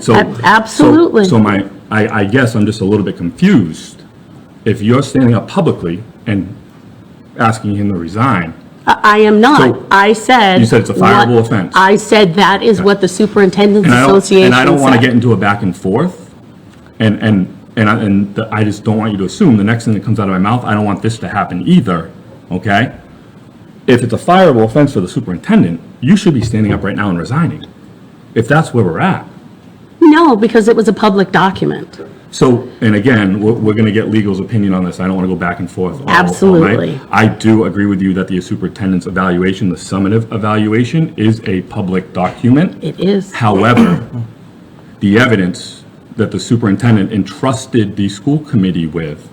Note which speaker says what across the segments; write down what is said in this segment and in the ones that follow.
Speaker 1: So-
Speaker 2: ab- absolutely.
Speaker 1: so- So my, I, I guess I'm just a little bit confused. If you're standing up publicly and asking him to resign,
Speaker 2: Uh, I I am
Speaker 1: So,
Speaker 2: not. I said.
Speaker 1: you said it's a fireable
Speaker 2: what-
Speaker 1: offense.
Speaker 2: I said that is what the superintendent's
Speaker 1: and I don't,
Speaker 2: association
Speaker 1: and I don't want to
Speaker 2: said.
Speaker 1: get into a back and forth, and, and, and I, and the- I just don't want you to assume the next thing that comes out of my mouth, I don't want this to happen either, okay? If it's a fireable offense for the superintendent, you should be standing up right now and resigning, if that's where we're at.
Speaker 2: No, because it was a public document.
Speaker 1: So, and again, we're, we're gonna get legal's opinion on this, I don't wanna go back and forth. all- all night.
Speaker 2: Absolutely.
Speaker 1: I do agree with you that the superintendent's evaluation, the summative evaluation, is a public document.
Speaker 2: It is.
Speaker 1: However, the evidence that the superintendent entrusted the school committee with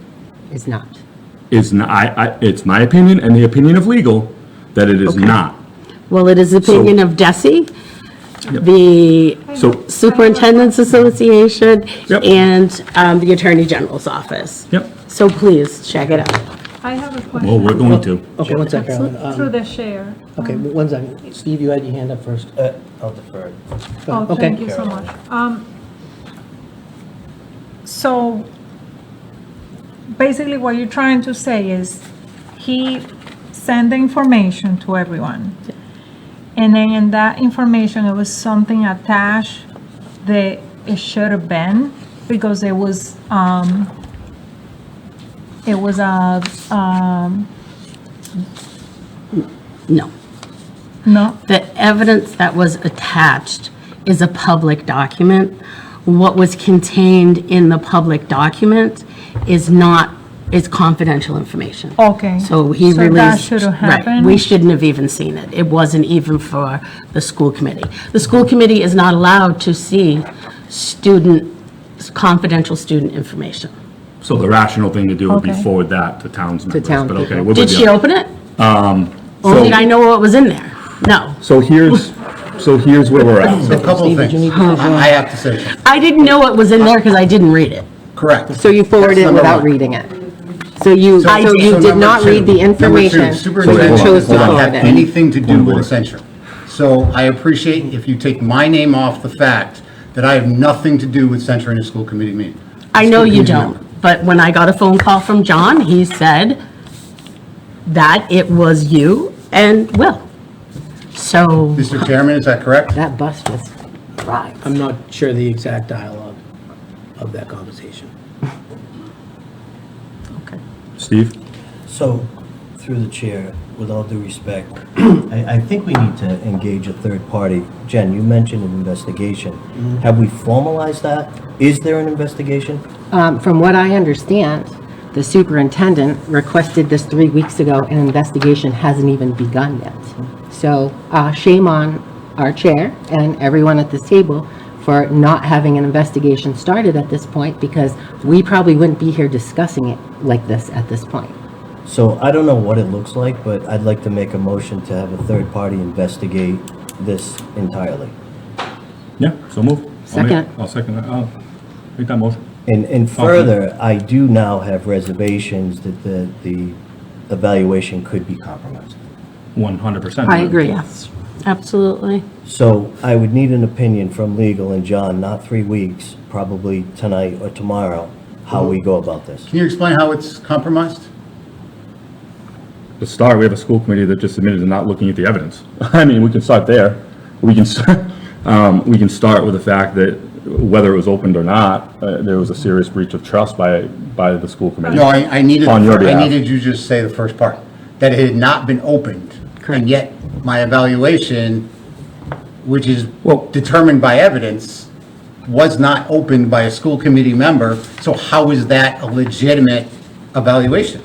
Speaker 3: It's not.
Speaker 1: is, n- I, I, it's my opinion and the opinion of legal, that it is not.
Speaker 2: Well, it is the opinion of DESI, the
Speaker 1: So,
Speaker 2: Superintendent's Association,
Speaker 1: Yep.
Speaker 2: and um, the Attorney General's Office.
Speaker 1: yep,
Speaker 2: So please, check it out.
Speaker 4: I have a
Speaker 1: well, we're
Speaker 4: question
Speaker 1: going to.
Speaker 5: Oh, Okay, one second, Carolyn. Um,
Speaker 4: through the chair.
Speaker 5: Okay, one second. Steve, you had your hand up first.
Speaker 3: Uh, I'll defer.
Speaker 4: Oh,
Speaker 5: okay.
Speaker 4: thank you so much. Um, So basically what you're trying to say is he sent the information to everyone. And then in that information, it was something attached that it should have been because it was, um, it was a, um,
Speaker 2: No.
Speaker 4: no,
Speaker 2: The evidence that was attached is a public document. What was contained in the public document is not, is confidential information.
Speaker 4: okay.
Speaker 2: So he
Speaker 4: So that
Speaker 2: released.
Speaker 4: should have
Speaker 2: right,
Speaker 4: happened.
Speaker 2: We shouldn't have even seen it. It wasn't even for the school committee. The school committee is not allowed to see student, confidential student information.
Speaker 1: So the rational thing to do would be
Speaker 4: Okay.
Speaker 1: forward that to towns members,
Speaker 3: town
Speaker 1: but okay,
Speaker 3: people.
Speaker 1: we're
Speaker 2: Did
Speaker 1: with
Speaker 2: she
Speaker 1: you.
Speaker 2: open it?
Speaker 1: So-
Speaker 2: Or did I know what was in there? No.
Speaker 1: So here's, so here's where we're at.
Speaker 6: A couple of things. I I have to say,
Speaker 2: I didn't know what was in there because I didn't read it.
Speaker 6: correct.
Speaker 3: So you forwarded
Speaker 6: That's
Speaker 3: it
Speaker 6: number
Speaker 3: without
Speaker 6: one.
Speaker 3: reading it? So you,
Speaker 6: So-
Speaker 3: so
Speaker 6: so
Speaker 3: you did
Speaker 6: number
Speaker 3: not
Speaker 6: two-
Speaker 3: read the
Speaker 6: Number
Speaker 3: information?
Speaker 1: So
Speaker 6: two,
Speaker 3: You
Speaker 6: superintendent
Speaker 1: hold on,
Speaker 3: chose
Speaker 6: does
Speaker 3: to
Speaker 1: hold on.
Speaker 6: not have
Speaker 3: forward it.
Speaker 6: anything to do with a censure. So I appreciate if you take my name off the fact that I have nothing to do with censuring a school committee meeting.
Speaker 2: I know you
Speaker 6: School committee
Speaker 2: don't, but when I got a phone call from John, he said that it was you and Will. So,
Speaker 6: member. Mr. Chairman, is that correct?
Speaker 3: That bus was right.
Speaker 5: I'm not sure the exact dialogue of that conversation.
Speaker 1: Steve?
Speaker 7: So, through the chair, with all due respect, I, I think we need to engage a third party. Jen, you mentioned an investigation. Have we formalized that? Is there an investigation?
Speaker 3: Um, From what I understand, the superintendent requested this three weeks ago, and investigation hasn't even begun yet. So uh, shame on our chair and everyone at this table for not having an investigation started at this point, because we probably wouldn't be here discussing it like this at this point.
Speaker 7: So I don't know what it looks like, but I'd like to make a motion to have a third party investigate this entirely.
Speaker 1: Yeah, so move. I'll make-
Speaker 3: Second.
Speaker 1: I'll second that, I'll make that motion.
Speaker 7: And, and further, I do now have reservations that the, the evaluation could be compromised.
Speaker 1: One hundred percent.
Speaker 3: I agree.
Speaker 2: yes, absolutely.
Speaker 7: So I would need an opinion from legal and John, not three weeks, probably tonight or tomorrow, how we go about this.
Speaker 6: Can you explain how it's compromised?
Speaker 1: To start, we have a school committee that just admitted to not looking at the evidence. I mean, we can start there. We can, start- um, we can start with the fact that whether it was opened or not, uh, there was a serious breach of trust by, by the school committee.
Speaker 6: No, I, I needed,
Speaker 1: On your
Speaker 6: I
Speaker 1: behalf.
Speaker 6: needed you to just say the first part, that it had not been opened.
Speaker 3: Correct.
Speaker 6: And yet, my evaluation, which is
Speaker 1: Well-
Speaker 6: determined by evidence, was not opened by a school committee member, so how is that a legitimate evaluation?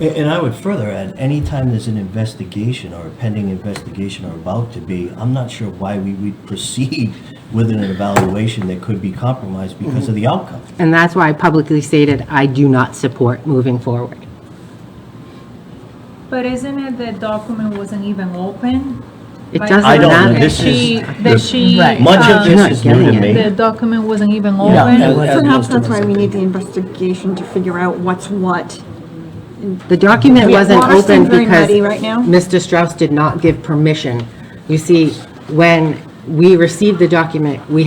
Speaker 7: A- And I would further add, anytime there's an investigation or a pending investigation or about to be, I'm not sure why we would proceed with an evaluation that could be compromised because of the outcome.
Speaker 3: And that's why I publicly stated I do not support moving forward.
Speaker 4: But isn't it the document wasn't even open?
Speaker 3: It
Speaker 4: Like,
Speaker 3: doesn't
Speaker 7: I don't know.
Speaker 3: matter.
Speaker 4: that
Speaker 7: This is-
Speaker 4: she- That she,
Speaker 2: Right.
Speaker 7: Much of
Speaker 4: uh,
Speaker 7: this is new to
Speaker 3: Not getting
Speaker 7: me.
Speaker 4: the document wasn't even
Speaker 5: that
Speaker 4: open?
Speaker 5: was- as
Speaker 8: Perhaps
Speaker 5: most of
Speaker 8: that's
Speaker 5: us
Speaker 8: why
Speaker 5: have
Speaker 8: we
Speaker 5: been.
Speaker 8: need the investigation to figure out what's what.
Speaker 3: The document
Speaker 8: We-
Speaker 3: wasn't
Speaker 8: Water's
Speaker 3: open
Speaker 8: very
Speaker 3: because
Speaker 8: muddy right now.
Speaker 3: Mr. Strauss did not give permission. You see, when we received the document, we